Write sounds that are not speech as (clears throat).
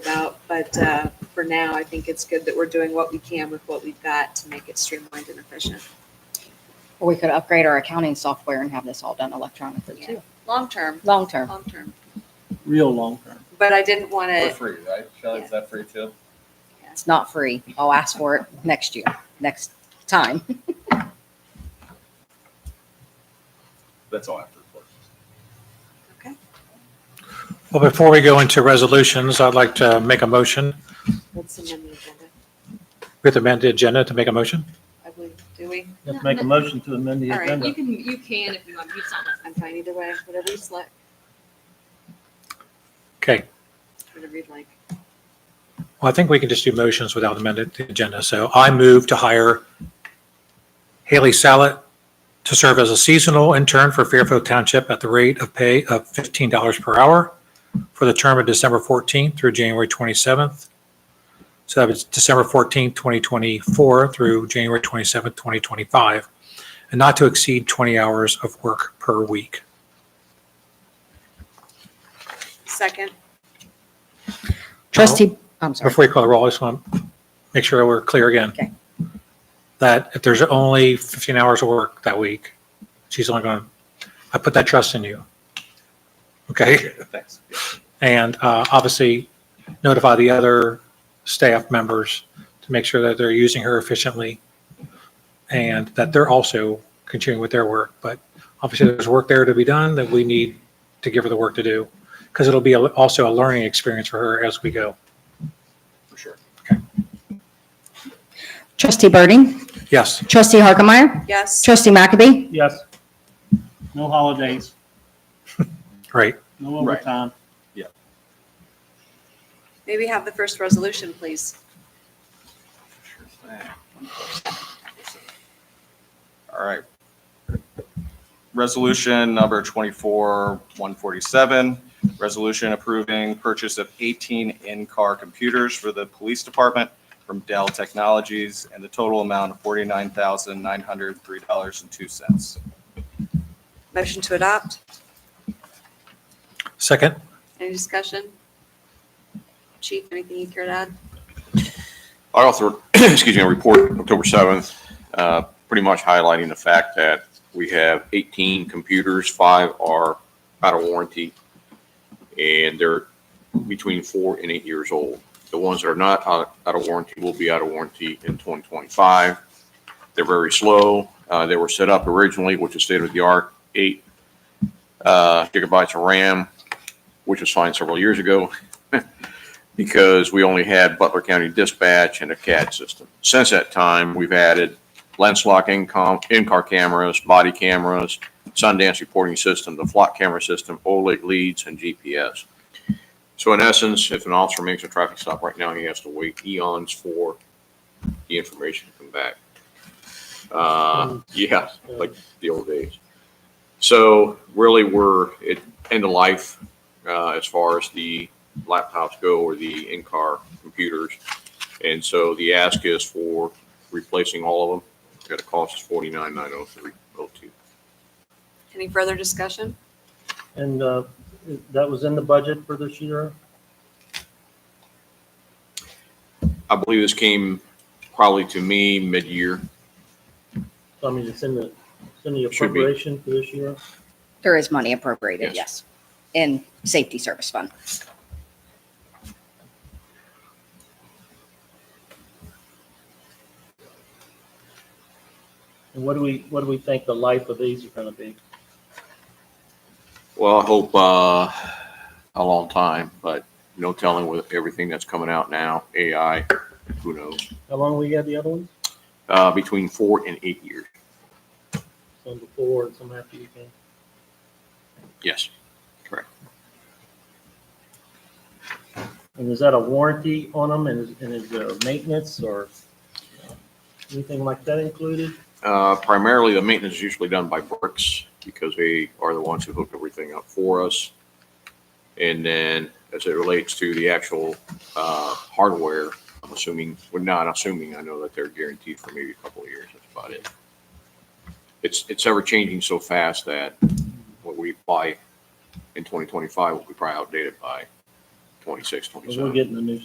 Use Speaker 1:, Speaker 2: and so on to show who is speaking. Speaker 1: But uh, for now, I think it's good that we're doing what we can with what we've got to make it streamlined and efficient.
Speaker 2: Or we could upgrade our accounting software and have this all done electronically
Speaker 1: Yeah.
Speaker 2: too,
Speaker 1: Long term,
Speaker 2: long term.
Speaker 1: long term.
Speaker 3: real long term.
Speaker 1: But I didn't want
Speaker 4: For
Speaker 1: to,
Speaker 4: free, right? Shelley, is that free too?
Speaker 2: It's not free. I'll ask for it next year, next time.
Speaker 4: That's all I have to report.
Speaker 1: okay,
Speaker 5: Well, before we go into resolutions, I'd like to make a motion
Speaker 1: let's amend the agenda.
Speaker 5: with amended agenda to make a motion.
Speaker 1: I believe, do we?
Speaker 3: Let's make a motion to amend the
Speaker 1: All right,
Speaker 3: agenda.
Speaker 6: You can, you can if you want, you saw that.
Speaker 1: I'm fine either way, whatever you select,
Speaker 5: Okay.
Speaker 1: whatever you'd like.
Speaker 5: Well, I think we can just do motions without amended agenda. So I move to hire Haley Sallet to serve as a seasonal intern for Fairfield Township at the rate of pay of $15 per hour for the term of December 14th through January 27th. So that was December 14th, 2024 through January 27th, 2025, and not to exceed 20 hours of work per week.
Speaker 1: Second,
Speaker 2: Trustee, Oh, I'm sorry.
Speaker 5: Before you call the roll, I just want to make sure we're clear again.
Speaker 2: Okay.
Speaker 5: That if there's only 15 hours of work that week, she's only going, to I put that trust in you. Okay?
Speaker 4: Thanks.
Speaker 5: And uh, obviously notify the other staff members to make sure that they're using her efficiently and that they're also continuing with their work. But obviously there's work there to be done that we need to give her the work to do because it'll be a- also a learning experience for her as we go.
Speaker 4: For sure.
Speaker 2: Trustee Birding,
Speaker 5: Yes.
Speaker 2: trustee Harkemaier,
Speaker 1: yes,
Speaker 2: trustee McAbey,
Speaker 3: Yes. No holidays,
Speaker 5: Right.
Speaker 3: no
Speaker 4: Right.
Speaker 3: overtime.
Speaker 1: maybe have the first resolution, please.
Speaker 4: All right. Resolution number twenty-four, one forty-seven, resolution approving purchase of eighteen in-car computers for the police department from Dell Technologies and the total amount of forty-nine thousand, nine hundred, three dollars and two cents.
Speaker 1: Motion to adopt,
Speaker 5: Second,
Speaker 1: any discussion? Chief, anything you care to add?
Speaker 7: I authored, (clears throat) excuse me, a report October 7th, uh, pretty much highlighting the fact that we have 18 computers, five are out of warranty, and they're between four and eight years old. The ones that are not out out of warranty will be out of warranty in 2025. They're very slow. Uh, They were set up originally, which is state-of-the-art, eight uh, gigabytes of RAM, which was fine several years ago because we only had Butler County Dispatch and a CAD system. Since that time, we've added lens lock in-com, in-car cameras, body cameras, Sundance reporting system, the flock camera system, OLED leads, and GPS. So in essence, if an officer makes a traffic stop right now, he has to wait eons for the information to come back. Uh, yeah, like the old days. So really, we're at end of life, uh, as far as the laptops go or the in-car computers. And so the ask is for replacing all of them. Got a cost of forty-nine, nine oh three, oh two.
Speaker 1: Any further discussion?
Speaker 3: And uh, that was in the budget for this year?
Speaker 7: I believe this came probably to me mid-year.
Speaker 3: I mean, it's in the, it's in the
Speaker 7: Should be.
Speaker 3: appropriation for this year?
Speaker 2: there is money appropriated, yes,
Speaker 7: Yes.
Speaker 2: in safety service fund.
Speaker 3: And what do we, what do we think the life of these are gonna be?
Speaker 7: Well, I hope, uh, a long time, but no telling with everything that's coming out now, AI, who knows?
Speaker 3: How long we had the other ones?
Speaker 7: Uh, between four and eight years.
Speaker 3: Some before and some after you came?
Speaker 7: Yes.
Speaker 3: And is that a warranty on them and is, and is there maintenance or uh, anything like that included?
Speaker 7: Uh, primarily, the maintenance is usually done by Brooks because they are the ones who hook everything up for us. And then as it relates to the actual, uh, hardware, I'm assuming, well, not assuming, I know that they're guaranteed for maybe a couple of years. That's about it. It's, it's ever changing so fast that what we buy in 2025 will be probably outdated by 26,
Speaker 3: Or we're
Speaker 7: 27.
Speaker 3: getting the new